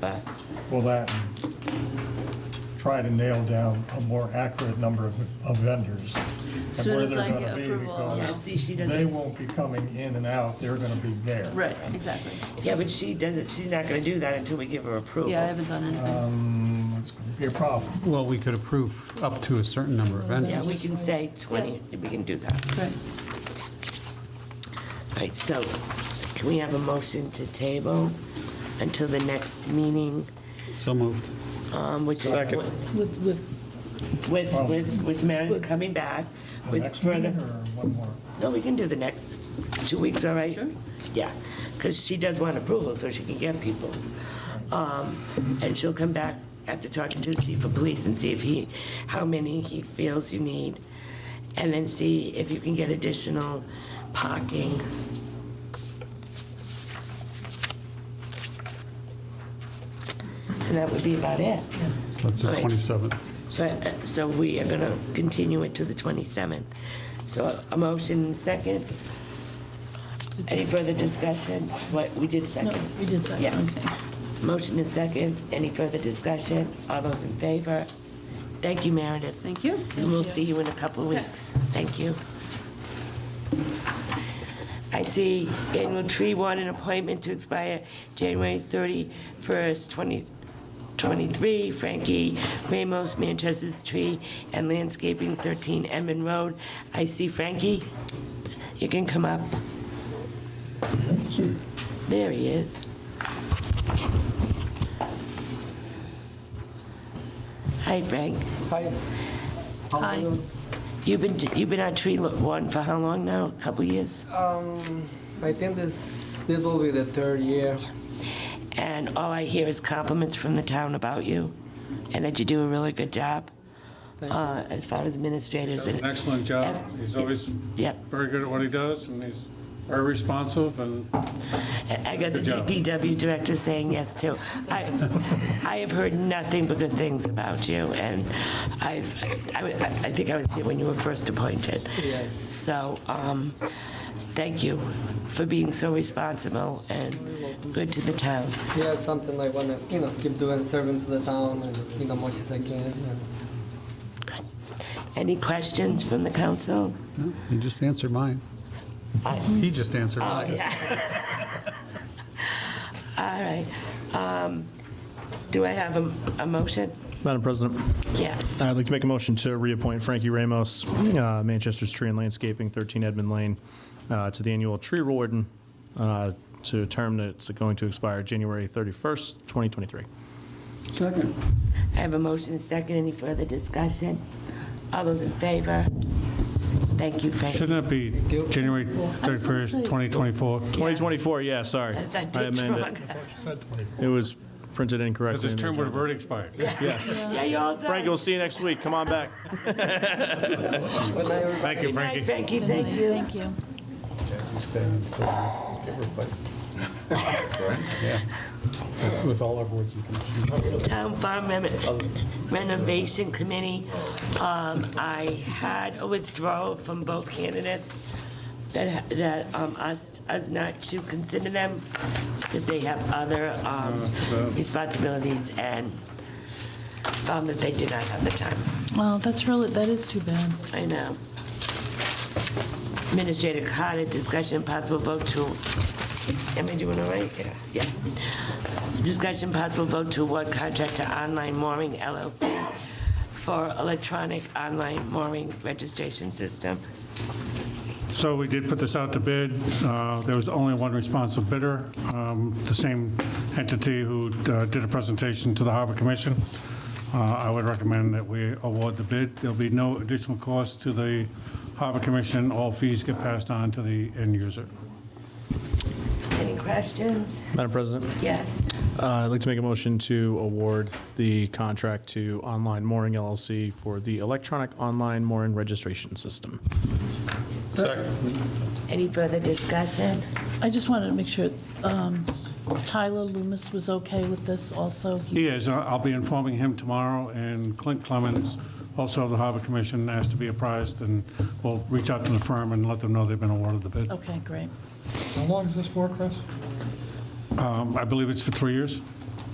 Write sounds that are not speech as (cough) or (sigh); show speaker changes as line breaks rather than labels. But
Well, that, and try to nail down a more accurate number of of vendors. and
Soon
where
as
they're
I
gonna
get
be,
approval,
because
yeah.
See, she doesn't-
They won't be coming in and out, they're gonna be there.
Right, exactly.
Yeah, but she doesn't, she's not gonna do that until we give her approval.
Yeah, I haven't done
Uh,
anything.
Um, It's gonna be a problem.
Well, we could approve up to a certain number of
Yeah,
vendors.
we can say 20, we can do that.
Right.
All right, so can we have a motion to table until the next meeting?
So moved.
um, Which
Second.
With, with,
With, with, with Meredith coming back,
Um, The
with
next meeting
further,
or one more?
no, we can do the next two weeks, all right?
Sure.
Yeah, because she does want approval so she can get people. Um, And she'll come back after talking to the chief of police and see if he, how many he feels you need. And then see if you can get additional parking. And that would be about it.
So That's the
Right.
27th.
So, uh, so we are gonna continue it to the 27th. So a motion second. Any further discussion? What, we did
no,
second.
we did second,
Yeah.
okay.
Motion is second. Any further discussion? All those in favor? Thank you, Meredith.
Thank you.
And we'll see you in a couple of weeks. Thank you. I see annual tree warden appointment to expire January 31st, 2023. Frankie Ramos, Manchester's Tree and Landscaping, 13 Edmund Road. I see Frankie. You can come up. There he is. Hi, Frank.
Hi. How
Hi.
are you?
You've been, you've been on tree lo- warden for how long now? A couple years?
Um, I think this, this will be the third year.
And all I hear is compliments from the town about you and that you do a really good job
Thank you.
uh, as far as administrators.
Does an
and
excellent job. He's always
Yep.
very good at what he does, and he's very responsive, and
I got the
Good job.
DPW director saying yes too. I, I have heard nothing but good things about you and I've, I, I think I was here when you were first appointed.
Yes.
So, um, thank you for being so responsible and good to the town.
Yeah, it's something I wanna, you know, keep doing, serving to the town and, you know, much as I can. And
Any questions from the council?
No, You just answered mine.
I-
He just answered
Oh,
mine.
yeah. All right. Um, Do I have a, a motion?
Madam President,
Yes.
I'd like to make a motion to reappoint Frankie Ramos, uh, Manchester's Tree and Landscaping, 13 Edmund Lane, uh, to the annual tree warden, uh, to a term that's going to expire January 31st, 2023.
Second.
I have a motion and second. Any further discussion? All those in favor? Thank you, Frank.
shouldn't that be January 31st, 2024?
2024, yeah,
(laughs)
sorry.
That-
I
that's
amend
wrong.
it. It was printed
Because
incorrectly.
his
in the
term would have
agenda.
already expired.
(laughs) Yeah, you're all done.
Frankie, we'll see you next week. Come on back.
when I
Thank you,
Good night,
Frankie.
Frankie, thank you.
Thank you.
With all our boards and commissions.
Town Farm Rem- Renovation Committee. Um, I had a withdrawal from both candidates that, that um, us, us not to consider them, that they have other um, responsibilities and found that they did not have the time.
Well, that's really, that is too bad.
I know. Administrator Carter, discussion and possible vote to, am I doing all right? Yeah. Discussion possible vote to award contract to Online Mooring LLC for electronic online mooring registration system.
So we did put this out to bid. Uh, There was only one responsible bidder, um, the same entity who uh, did a presentation to the Harbor Commission. Uh, I would recommend that we award the bid. There'll be no additional cost to the Harbor Commission. All fees get passed on to the end user.
Any questions?
Madam President,
Yes.
uh, I'd like to make a motion to award the contract to Online Mooring LLC for the electronic online mooring registration system.
Any further discussion?
I just wanted to make sure, um, Tyler Loomis was okay with this also. He-
He is. I- I'll be informing him tomorrow, and Clint Clemens, also of the Harbor Commission, asked to be apprised, and we'll reach out to the firm and let them know they've been awarded the bid.
Okay, great.
Um, I believe it's for three years.